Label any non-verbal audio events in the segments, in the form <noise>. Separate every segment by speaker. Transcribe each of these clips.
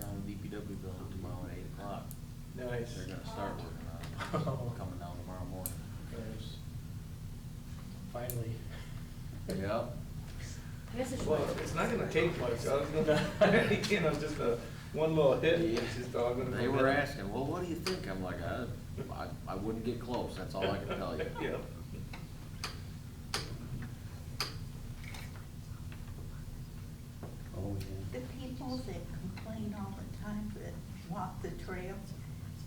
Speaker 1: DPW building tomorrow at eight o'clock.
Speaker 2: Nice.
Speaker 1: They're gonna start working on it, coming down tomorrow morning.
Speaker 2: Nice. Finally.
Speaker 1: Yep.
Speaker 3: This is.
Speaker 2: Well, it's not gonna take much, I was gonna, <laughs> you know, just a, one little hit, it's just all gonna.
Speaker 1: They were asking, well, what do you think? I'm like, I, I, I wouldn't get close, that's all I can tell you.
Speaker 2: <laughs> Yeah.
Speaker 4: <laughs> Oh,
Speaker 5: The people that complain all the time that walk the trails,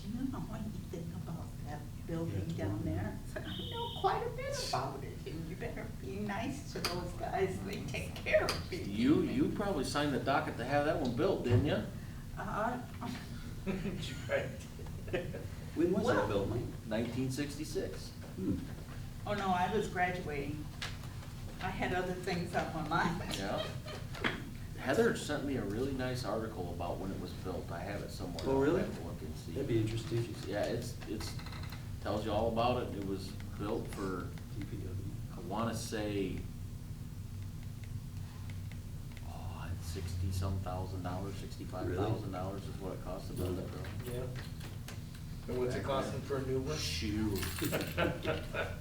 Speaker 5: do you know what you think about that building down there? I said, I know quite a bit about it, and you better be nice to those guys, they take care of you.
Speaker 1: You, you probably signed the docket to have that one built, didn't you?
Speaker 5: Uh, <laughs>
Speaker 2: Right.
Speaker 4: When was
Speaker 5: Well-
Speaker 4: that built, Mike?
Speaker 1: Nineteen sixty-six.
Speaker 4: Hmm.
Speaker 5: oh no, I was graduating. I had other things on my mind.
Speaker 1: Yeah. Heather sent me a really nice article about when it was built. I have it somewhere.
Speaker 4: Oh, really?
Speaker 1: I'll have to Look and see.
Speaker 4: That'd be interesting.
Speaker 1: Yeah, it's, it's, tells you all about it. It was built for,
Speaker 4: DPW.
Speaker 1: I wanna say, oh, sixty-some thousand dollars, sixty-five thousand dollars is what it cost to build that building.
Speaker 2: Yeah. And what's it costing for a new one?
Speaker 1: Shoot.
Speaker 2: <laughs>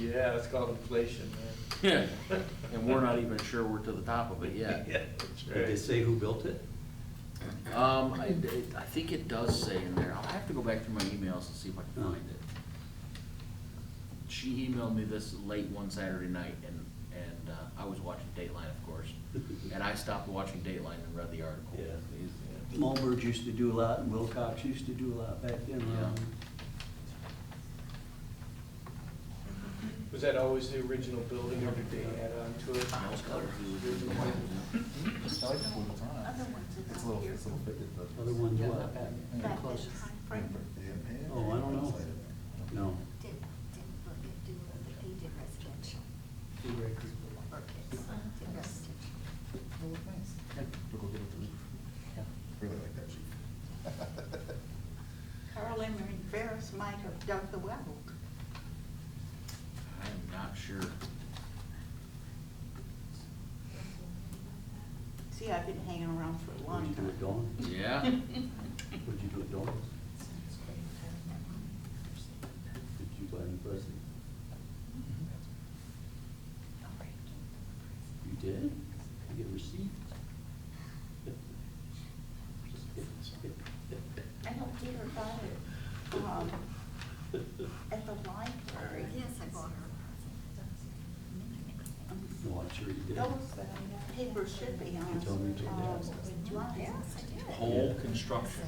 Speaker 2: Yeah, it's called inflation, man.
Speaker 1: Yeah, and we're not even sure we're to the top of it yet.
Speaker 2: <laughs> Yeah, that's
Speaker 4: Did they
Speaker 2: right.
Speaker 4: say who built it?
Speaker 1: Um, I, it- I think it does say in there, I'll have to go back through my emails and see if I can find it. She emailed me this late one Saturday night and, and uh, I was watching Dateline, of
Speaker 2: <laughs>
Speaker 1: course. And I stopped watching Dateline and read the article.
Speaker 4: Yeah.
Speaker 2: Yeah.
Speaker 4: Mulberg used to do a lot, and Wilcox used to do a lot back then.
Speaker 1: Yeah.
Speaker 2: Was that always the original building, or did they add on to it?
Speaker 1: Mouse color.
Speaker 6: I like the blue
Speaker 5: Other
Speaker 6: font.
Speaker 5: ones
Speaker 6: It's
Speaker 5: is
Speaker 6: a
Speaker 5: up
Speaker 6: little,
Speaker 5: here.
Speaker 6: it's a little fitted, but.
Speaker 4: Other ones
Speaker 5: Yeah,
Speaker 4: what?
Speaker 5: that-
Speaker 6: Yeah,
Speaker 5: that
Speaker 6: close.
Speaker 5: is high
Speaker 6: Yeah,
Speaker 5: frame.
Speaker 6: yeah,
Speaker 4: Oh, I don't know.
Speaker 6: inside it.
Speaker 4: No.
Speaker 7: Did, did Burkett do, he did residential. Burkett,
Speaker 5: Uh-huh.
Speaker 7: did residential.
Speaker 6: It'll look nice. We'll go get it delivered. Really like that sheet.
Speaker 5: Carl Emery Ferris might have dug the well.
Speaker 1: I'm not sure.
Speaker 5: See, I've been hanging around for a
Speaker 4: Would
Speaker 5: long
Speaker 4: you do
Speaker 5: time.
Speaker 4: it dawn?
Speaker 1: Yeah,
Speaker 4: Would you do it dawn? Did you buy any present? You did? You get received?
Speaker 5: <laughs> I don't hear about it, um, at the library.
Speaker 7: Yes, I bought her a present.
Speaker 4: No, I'm sure you did.
Speaker 5: Those uh, papers should be
Speaker 4: You
Speaker 5: on.
Speaker 4: told me to.
Speaker 5: um,
Speaker 7: Yes,
Speaker 5: Drive.
Speaker 7: I did.
Speaker 1: Whole Construction,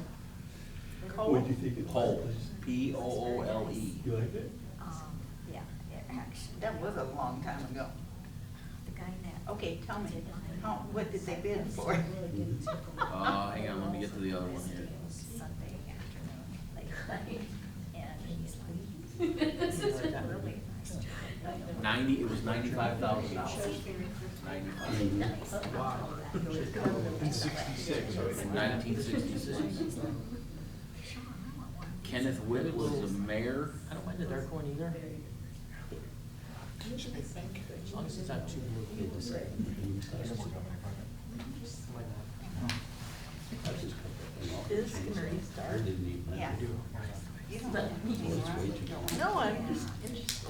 Speaker 4: What'd you think it was?
Speaker 1: Pole, P O O L E.
Speaker 4: You liked it?
Speaker 7: Um, yeah, it actually.
Speaker 5: That was a long time ago.
Speaker 7: The guy that.
Speaker 5: Okay, tell me,
Speaker 7: did mine
Speaker 5: how, what did they bid for?
Speaker 7: really didn't tickle
Speaker 1: <laughs>
Speaker 7: me.
Speaker 1: Uh, hang on, let me get to the other one here.
Speaker 7: Sunday afternoon, late night, and he's like, <laughs> this is really nice.
Speaker 1: Ninety, it was ninety-five thousand dollars.
Speaker 7: Really nice. Wow.
Speaker 2: Six, right?
Speaker 1: Nineteen sixty-six. Kenneth Witt was the mayor.
Speaker 8: I don't mind the dark one either. As long as it's not too blue. Why not?
Speaker 5: This community
Speaker 4: I
Speaker 5: started.
Speaker 4: didn't even.
Speaker 5: Yeah. You don't have
Speaker 4: Well,
Speaker 5: anything
Speaker 4: it's
Speaker 5: wrong
Speaker 4: way
Speaker 5: with
Speaker 4: too-
Speaker 5: going. No, I'm just interested.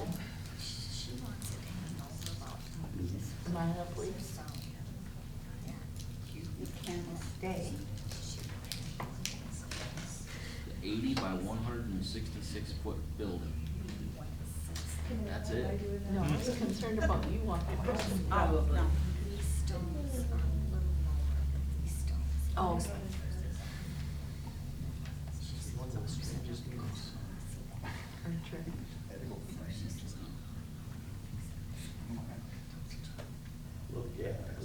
Speaker 7: She wants it handled about.
Speaker 5: Mm-hmm.
Speaker 8: Mine, please.
Speaker 7: So, yeah.
Speaker 5: You you can stay.
Speaker 7: She really wants it.
Speaker 1: eighty by one hundred and sixty-six foot building. That's it.
Speaker 8: No, I was concerned about you walking across.
Speaker 5: Oh, no.
Speaker 7: These stones are a little lower than these stones.
Speaker 8: Oh.
Speaker 4: Well, yeah.
Speaker 7: But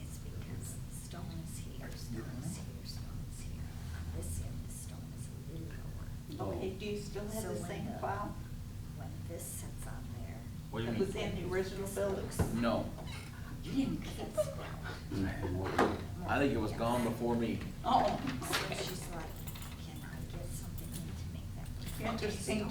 Speaker 7: it's because stones here, stones here, stones here. On this end, the stone is a little lower.
Speaker 5: Okay, do you still have
Speaker 7: So
Speaker 5: the
Speaker 7: when uh,
Speaker 5: same
Speaker 7: the-
Speaker 5: file?
Speaker 7: When this sits on there.
Speaker 1: What do you
Speaker 5: It was
Speaker 1: mean?
Speaker 5: in the original building.
Speaker 1: No,
Speaker 7: You didn't get
Speaker 5: <laughs>
Speaker 7: it well.
Speaker 1: I think it was gone before me.
Speaker 5: Oh.
Speaker 7: So she's like, can I get something in to make that? work?"
Speaker 5: Interesting